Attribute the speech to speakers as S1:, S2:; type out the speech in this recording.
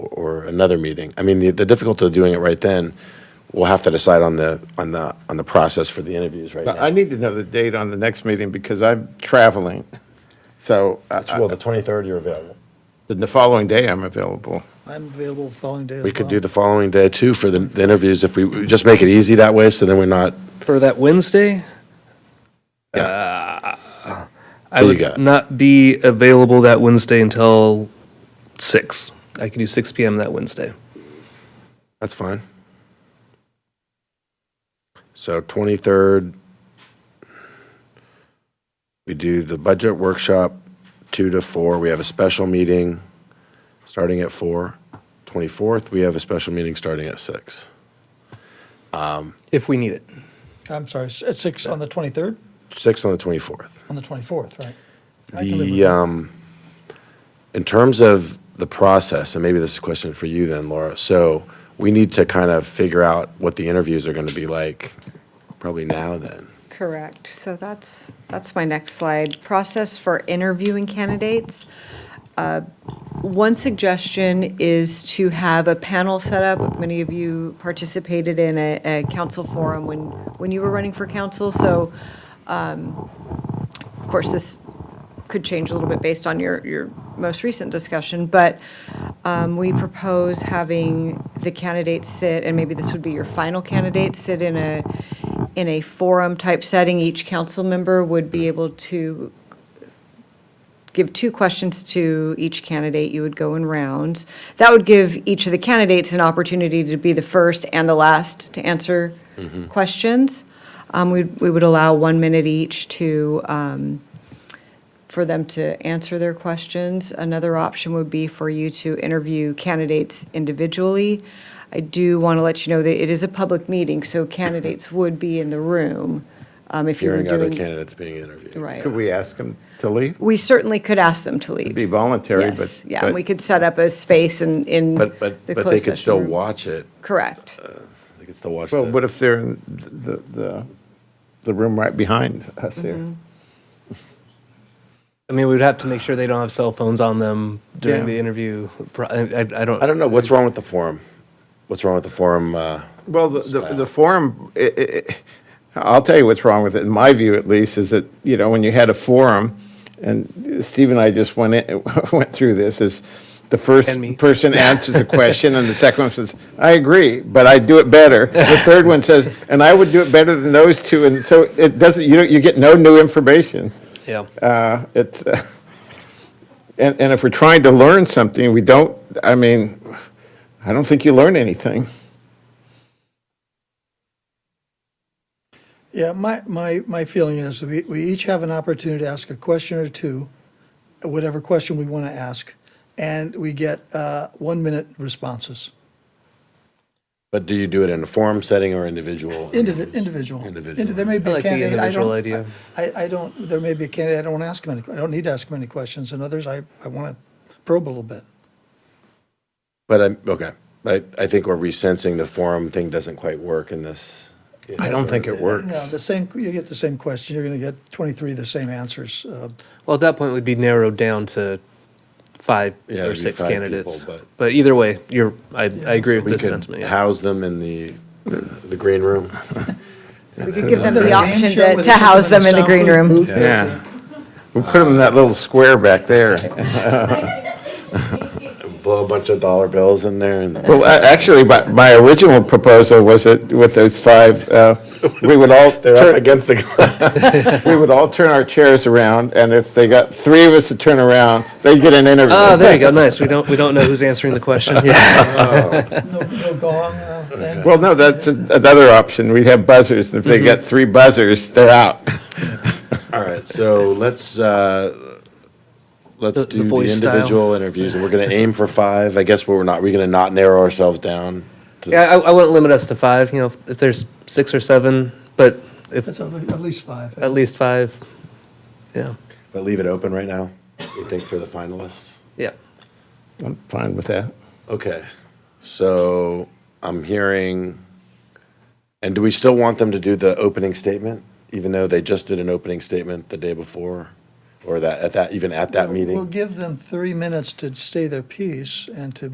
S1: or another meeting. I mean, the, the difficulty of doing it right then, we'll have to decide on the, on the, on the process for the interviews right
S2: But I
S1: now. Uh,
S2: need to know the date on the next meeting because I'm traveling. So I-
S1: Well, the 23rd you're available.
S2: I- the following day, I'm available.
S3: I'm available the following day as well.
S1: We could do the following day too for the, the interviews if we, we just make it easy that way, so then we're not,
S4: For that Wednesday? Uh, I
S1: Who you
S4: would
S1: got?
S4: not be available that Wednesday until 6. I could do 6 p.m. that Wednesday.
S1: that's fine. So 23rd, we do the budget workshop, 2 to 4. We have a special meeting starting at 4. 24th, we have a special meeting starting at 6.
S4: If we need it.
S3: I'm sorry, s- at six on the twenty-third,
S1: 6 on the 24th.
S3: on the twenty-fourth, right? I can live with
S1: The,
S3: that.
S1: um, in terms of the process, and maybe this is a question for you then, Laura. So we need to kind of figure out what the interviews are going to be like, probably now then.
S5: Correct. So that's, that's my next slide. Process for interviewing candidates. Uh, One suggestion is to have a panel set up. Many of you participated in a, a council forum when, when you were running for council. So, um, of course, this could change a little bit based on your, your most recent discussion, but um, we propose having the candidates sit, and maybe this would be your final candidate, sit in a, in a forum-type setting. Each council member would be able to give two questions to each candidate. You would go in rounds. That would give each of the candidates an opportunity to be the first and the last to answer
S1: Mm-hmm.
S5: questions. Um, We we would allow one minute each to, um, for them to answer their questions. Another option would be for you to interview candidates individually. I do want to let you know that it is a public meeting, so candidates would be in the room um, if you were
S1: Hearing other
S5: doing.
S1: candidates being interviewed.
S5: Right.
S2: Could we ask them to leave?
S5: We certainly could ask them to leave.
S2: Be voluntary, but.
S5: Yes, yeah, and
S2: but-
S5: we could set up a space in, in.
S1: But, but,
S5: the
S1: but they
S5: closed
S1: could
S5: session
S1: still
S5: room.
S1: watch it.
S5: Correct.
S1: They could still watch
S2: Well, what
S1: the,
S2: if they're in the, the, the room right behind us
S5: Mm-hmm.
S2: here?
S4: I mean, we'd have to make sure they don't have cell phones on them during
S2: Yeah.
S4: the interview. Pro- I, I, I don't.
S1: I don't know, what's wrong with the forum? What's wrong with the forum? uh,
S2: Well, the, the the forum, i- i- i- I'll tell you what's wrong with it, in my view at least, is that, you know, when you had a forum, and Steve and I just went, in- went through this, is the first
S4: And me.
S2: person answers a question, and the second one says, I agree, but I do it better. The third one says, and I would do it better than those two, and so it doesn't, you know, you get no new information.
S4: Yeah.
S2: Uh, It's, uh, and, and if we're trying to learn something, we don't, I mean, I don't think you learn anything.
S3: Yeah, my, my, my feeling is we, we each have an opportunity to ask a question or two, whatever question we want to ask, and we get uh, one-minute responses.
S1: But do you do it in a forum setting or individual?
S3: Indivi-
S1: interviews?
S3: Individual. Indi- There
S1: Individual.
S3: may be
S4: I
S3: a
S4: like the
S3: candidate, I
S4: individual
S3: don't,
S4: idea.
S3: I, I don't, there may be a candidate, I don't want to ask him any, I don't need to ask him any questions, and others, I, I want to probe a little bit.
S1: But I'm, okay, I, I think we're resensing the forum thing doesn't quite work in this.
S2: I don't think it works.
S3: No, the same, you get the same question, you're going to get 23 of the same answers. uh,
S4: Well, at that point, we'd be narrowed down to five
S1: Yeah, it'd
S4: or
S1: be
S4: six
S1: five
S4: candidates.
S1: people, but-
S4: but, either way, you're. I, I agree with
S1: We
S4: this
S1: could
S4: sentiment. yeah.
S1: house them in the, the green room.
S5: We could give them
S3: Another
S5: the
S3: game
S5: option
S3: show
S5: to,
S3: with
S5: to house
S3: people
S5: them in the green
S3: soundproof
S5: room.
S3: booth.
S2: Yeah. We'll put them in that little square back there.
S1: Blow a bunch of dollar bills in there and.
S2: Well, a- actually, my, my original proposal was that with those five, uh, we would all,
S1: They're up
S2: turn-
S1: against the.
S2: we would all turn our chairs around, and if they got three of us to turn around, they'd get an interview.
S4: Ah, there you go. Nice. We don't. We don't know who's answering the question. Yeah.
S3: No no gong uh, thing.
S2: Well, no, that's a- another option. We'd have buzzers, and if they
S4: Mm-hmm.
S2: got three buzzers, they're out.
S1: All right, so let's, uh, let's
S4: The- the
S1: do the
S4: voice style.
S1: individual interviews and we're gonna aim for five. I guess we're not, we're gonna not narrow ourselves down. to-
S4: Yeah, I, I wouldn't limit us to five. You know, if, if there's six or seven, but if
S3: That's at le- at least five.
S4: at least five, yeah,
S1: But leave it open right now, you think for the finalists?
S4: yeah.
S2: I'm fine with that.
S1: Okay, so I'm hearing, and do we still want them to do the opening statement? Even though they just did an opening statement the day before? Or that, at that, even at that meeting?
S3: We'll give them three minutes to say their piece and to